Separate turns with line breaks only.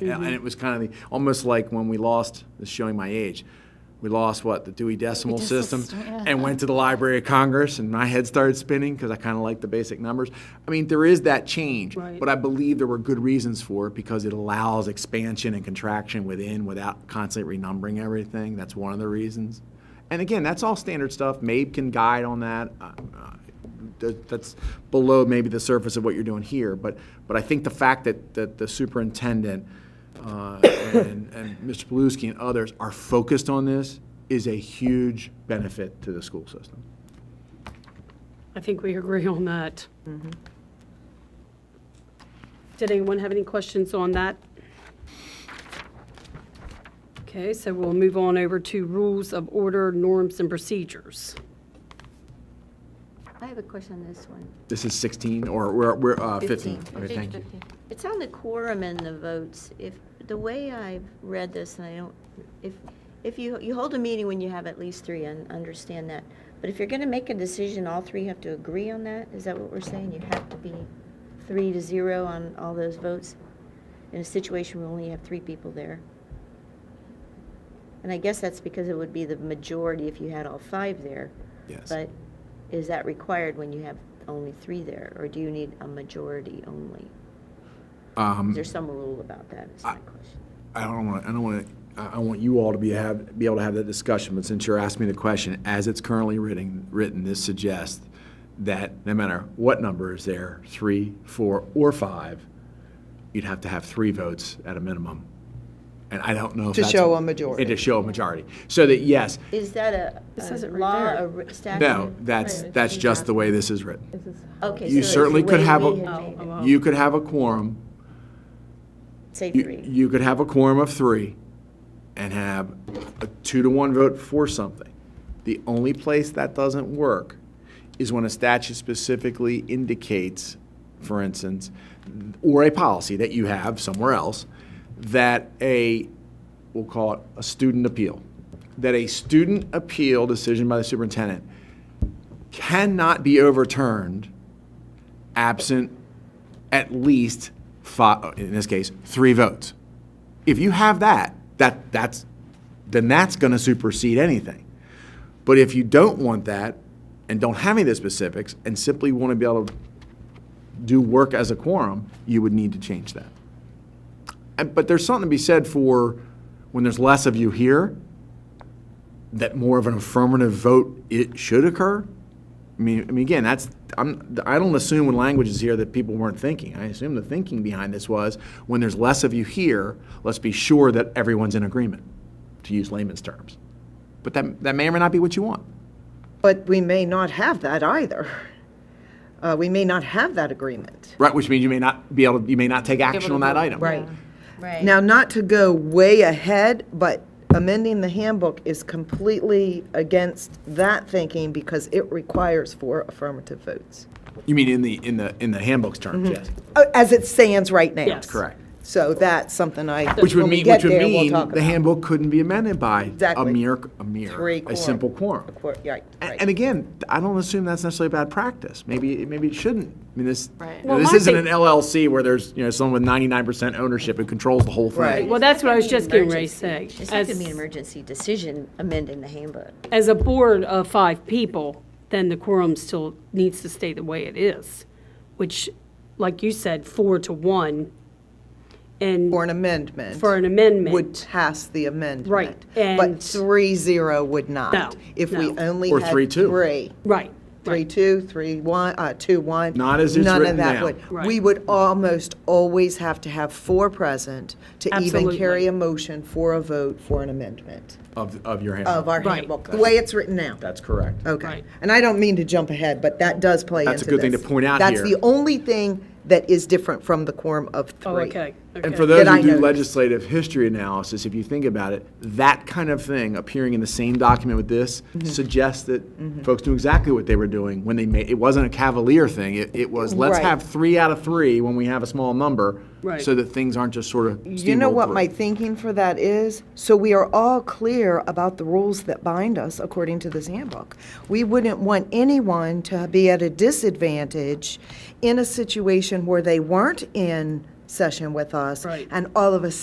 And, and it was kind of the, almost like when we lost, this is showing my age, we lost what, the Dewey Decimal
Decimal
System
System, yeah.
and went to the Library of Congress and my head started spinning because I kind of like the basic numbers. I mean, there is that change,
Right.
but I believe there were good reasons for it because it allows expansion and contraction within without constantly renumbering everything. That's one of the reasons. And again, that's all standard stuff. MABE can guide on that. Uh, uh, that- that's below maybe the surface of what you're doing here, but, but I think the fact that, that the superintendent uh, and, and Mr. Paluski and others are focused on this is a huge benefit to the school system.
I think we agree on that. Did anyone have any questions on that? Okay, so we'll move on over to rules of order, norms, and procedures.
I have a question on this one.
This is 16, or we're, we're uh, 15.
15.
Okay, thank you.
It's on the quorum and the votes. If, the way I've read this, and I don't, if, if you, you hold a meeting when you have at least three, and understand that. But if you're going to make a decision, all three have to agree on that? Is that what we're saying? You have to be three to zero on all those votes? In a situation where we only have three people there? And I guess that's because it would be the majority if you had all five there.
Yes.
But is that required when you have only three there, or do you need a majority only? Is there some rule about that, is my question?
Mm. I don't want, to. I don't want to, I want you all to be, have, be able to have that discussion, but since you're asking me the question, as it's currently written, written, this suggests that no matter what number is there, three, four, or five, you'd have to have three votes at a minimum. And I don't know if
To
that's-
show a majority.
And to show a majority. So that, yes,
Is that a
It says
a
it right
law,
there.
a re- statute?
no, that's, that's just the way this is written.
Okay, so
you
it's the
certainly could
way
have
we
a-
had
Oh,
made it.
oh, oh.
You could have a quorum,
Say
you,
three.
you could have a quorum of three and have a two to one vote for something. The only place that doesn't work is when a statute specifically indicates, for instance, or a policy that you have somewhere else, that a, we'll call it a student appeal, that a student appeal decision by the superintendent cannot be overturned absent at least five, in this case, three votes. If you have that, that, that's, then that's going to supersede anything. But if you don't want that and don't have any of the specifics and simply want to be able to do work as a quorum, you would need to change that. And, but there's something to be said for when there's less of you here, that more of an affirmative vote it should occur. I mean, I mean, again, that's I'm I don't assume when language is here that people weren't thinking. I assume the thinking behind this was when there's less of you here, let's be sure that everyone's in agreement, to use layman's terms. But that that may or may not be what you want.
But we may not have that either. Uh, We may not have that agreement.
Right, which means you may not be able to, you may not take action on that item.
Right.
Now, not to go way ahead, but amending the handbook is completely against that thinking because it requires four affirmative votes,
You mean in the in the in the handbook's terms, yes.
Uh, as it stands right now.
Yes.
Correct.
So that's something I,
Which would
when we
mean,
get
which would
there, we'll
mean
talk
the
about.
handbook couldn't be amended by a
Exactly.
mere, a mere,
Three
a
quorum.
simple quorum.
A quor- Right,
A-
right.
And again, I don't assume that's necessarily bad practice. Maybe, maybe it shouldn't. I mean, this,
Right.
you know,
Well,
this
my
isn't
thing-
an LLC where there's, you know, someone with 99% ownership who controls the whole
Right.
thing.
Well, that's what I was just getting ready to say.
It's not going to be an
As-
emergency decision amending the handbook.
as a board of five people, then the quorum still needs to stay the way it is, which, like you said, four to one, and
For an amendment.
for an amendment.
Would pass the amendment.
Right,
But
and-
three zero would not.
No,
If we
no.
only
Or
had
three, two.
Three.
Right.
Three, two, three, one, uh, two, one.
Not as it's
None
written
of that
now.
would.
Right.
We would almost always have to have four present to even
Absolutely.
carry a motion for a vote for an amendment
Of, of your
of
handbook.
our
Right.
handbook, the way it's written now.
That's correct.
Okay.
Right.
And I don't mean to jump ahead, but that does play into
That's a good thing
this.
to point out
That's
here.
the only thing that is different from the quorum of three.
Oh, okay.
And
okay.
for those
That I
who do
noticed.
legislative history analysis, if you think about it, that kind of thing appearing in the same document with this
Mm-hmm.
suggests that folks knew exactly what they were doing when they made, it wasn't a cavalier thing. It, it was, let's
Right.
have three out of three when we have a small number.
Right.
So that things aren't just sort of
You know
steamrolled
what
through.
my thinking for that is? So we are all clear about the rules that bind us according to this handbook. We wouldn't want anyone to be at a disadvantage in a situation where they weren't in session with us.
Right.
And all of a